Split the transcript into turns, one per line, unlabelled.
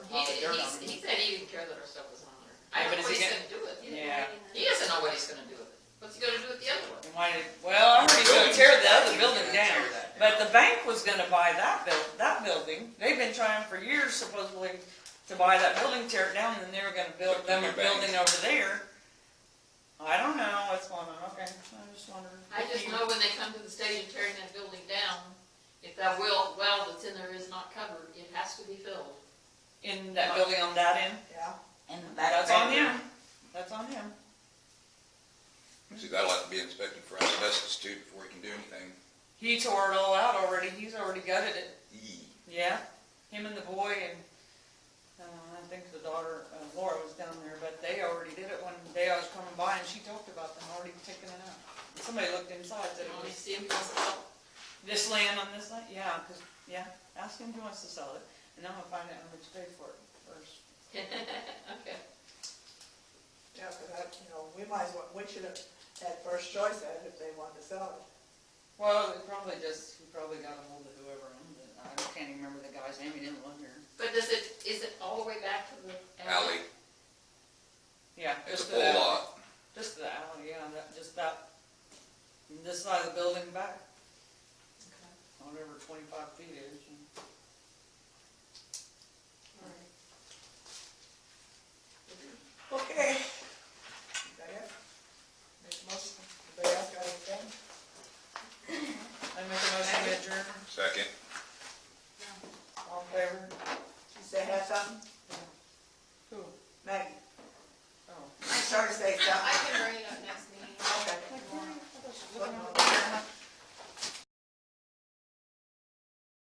dirt on
he's-
it.
He said he didn't care that our stuff was on there.
Oh, Yeah,
I
but
don't know
is
what
he
he's
gonna-
gonna do with it.
Yeah.
He doesn't know what he's gonna do with it. What's he gonna do with the other one?
And why did, well, I heard he's gonna tear the other building
Tear
down,
that
but the bank was gonna buy that buil, that building. They've been trying for years supposedly to buy that building, tear it down, and then they were gonna build
Put the
them
new
a
bank.
building over there. I don't know what's going on, okay, I just wondered.
I just know when they come to the stage and tearing that building down, if that well, well that's in there is not covered, it has to be filled.
In that building on that end,
Yeah.
in the back.
that's on
bedroom.
him, that's on him.
See, that'll have to be inspected for asbestos too before you can do anything.
He tore it all out already, he's already gutted it,
Yee.
yeah, him and the boy and, uh, I think the daughter, uh, Laura was down there, but they already did it one day I was coming by and she talked about them already taking it out. And Somebody looked inside, said
You
it
only
was
see him because it's all-
this land on this land, yeah, 'cause yeah, ask him if he wants to sell it, and I'm gonna find out how much to pay for it first.
Okay.
Yeah, because I, you know, we might as well, we should have had first choice at it if they wanted to sell it.
Well, it probably just, he probably got a hold of whoever owned it, I can't even remember the guy's name, he didn't live here.
But does it, is it all the way back to the
Alley,
alley?
Yeah,
it's
just
a
to that,
whole lot.
just to the alley, yeah, that, just that, this side of the building back.
Okay.
whatever twenty-five feet is.
All right.
Okay. Anybody else? Make a motion. Anybody else got anything?
I make a motion to adjourn.
Second.
All in favor? You say have something?
Oh,